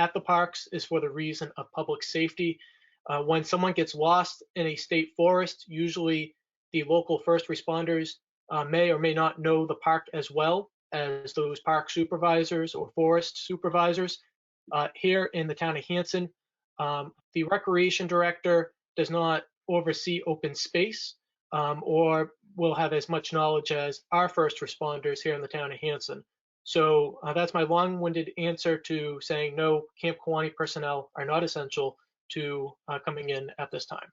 at the parks is for the reason of public safety. Uh, when someone gets lost in a state forest, usually the local first responders uh, may or may not know the park as well as those park supervisors or forest supervisors. Uh, here in the town of Hanson, um, the recreation director does not oversee open space um, or will have as much knowledge as our first responders here in the town of Hanson. So uh, that's my long-winded answer to saying no, Camp Kawani personnel are not essential to uh, coming in at this time.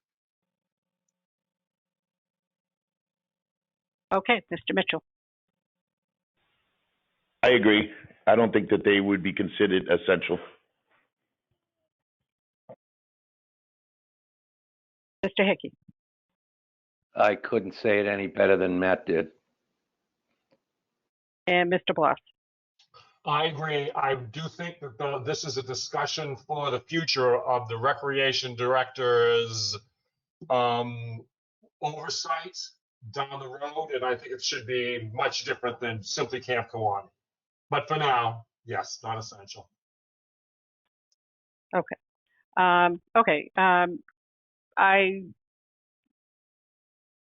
Okay, Mr. Mitchell. I agree. I don't think that they would be considered essential. Mr. Hickey. I couldn't say it any better than Matt did. And Mr. Bloss. I agree. I do think that uh, this is a discussion for the future of the recreation director's um, oversight down the road, and I think it should be much different than simply Camp Kawani. But for now, yes, not essential. Um, okay, um, I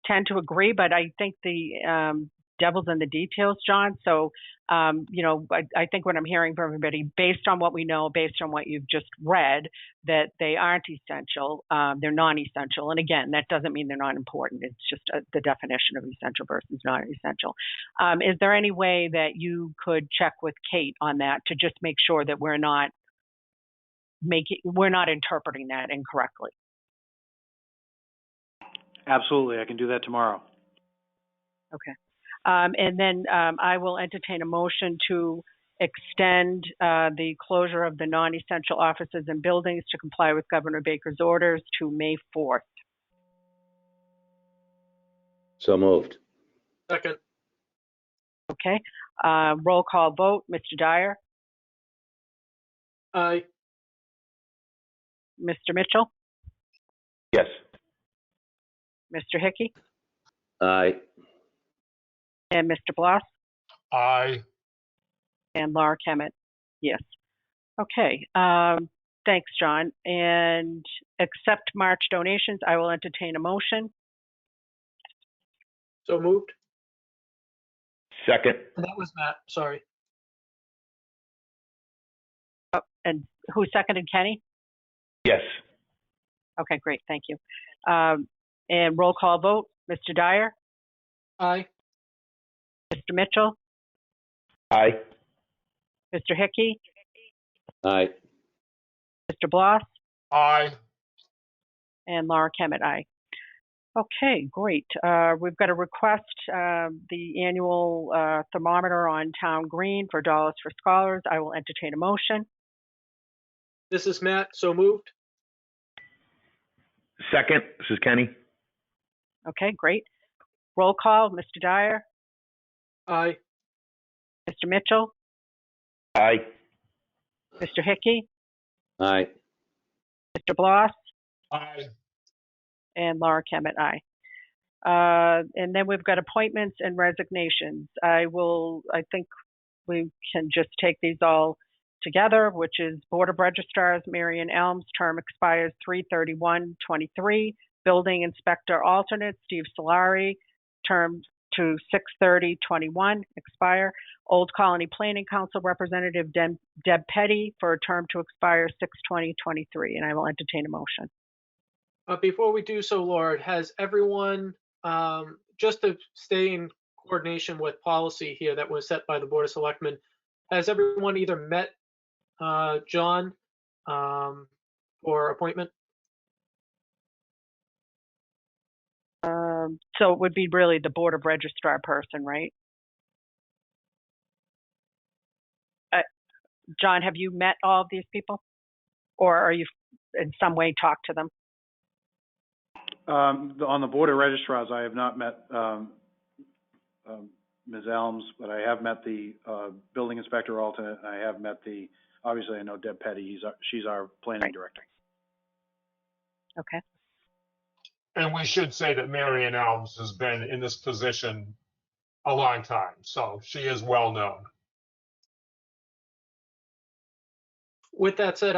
tend to agree, but I think the um, devil's in the details, John. So, um, you know, I, I think what I'm hearing from everybody, based on what we know, based on what you've just read, that they aren't essential. Um, they're non-essential, and again, that doesn't mean they're not important. It's just uh the definition of essential versus non-essential. Um, is there any way that you could check with Kate on that to just make sure that we're not making, we're not interpreting that incorrectly? Absolutely, I can do that tomorrow. Um, and then um, I will entertain a motion to extend uh, the closure of the non-essential offices and buildings to comply with Governor Baker's orders to May 4th. So moved. Second, Okay. Uh, roll call vote. Mr. Dyer, I Mr. Mitchell, Yes. Mr. Hickey, Aye. and Mr. Bloss, I and Laura Kemet. Yes. Okay. Um, thanks, John. And accept March donations. I will entertain a motion. so moved. Second. And that was Matt. Sorry. And who seconded Kenny? Yes. Okay, great. Thank you. Um, And roll call vote, Mr. Dyer, I Mr. Mitchell, Aye. Mr. Hickey, Aye. Mr. Bloss, I and Laura Kemet, aye. Okay, great. Uh, We've got a request, um, the annual uh, thermometer on Town Green for Dollars for Scholars. I will entertain a motion. This is Matt. So moved. Second. This is Kenny. Okay, great. Roll call, Mr. Dyer, I Mr. Mitchell, Aye. Mr. Hickey, Aye. Mr. Bloss, I And Laura Kemet, aye. Uh, and then we've got appointments and resignations. I will, I think we can just take these all together, which is Board of Registrars, Marion Elms, term expires 3/31/23. Building Inspector Alternate, Steve Solari, term to 6/30/21, expire. Old Colony Planning Council Representative Deb Deb Petty for a term to expire 6/20/23. And I will entertain a motion. Uh, before we do so, Lord, has everyone, um, just to stay in coordination with policy here that was set by the Board of Selectmen, has everyone either met uh, John um, for appointment? Um, so it would be really the Board of Registrar person, right? Uh, John, have you met all of these people? Or are you in some way talked to them? Um, the- on the Board of registrars, I have not met, um, um, Ms. Elms, but I have met the, uh, building inspector alternate, and I have met the, obviously, I know Deb Petty, he's, our- she's our planning Right. director. Okay, and we should say that Marion Elms has been in this position a long time, so she is well known. With that said,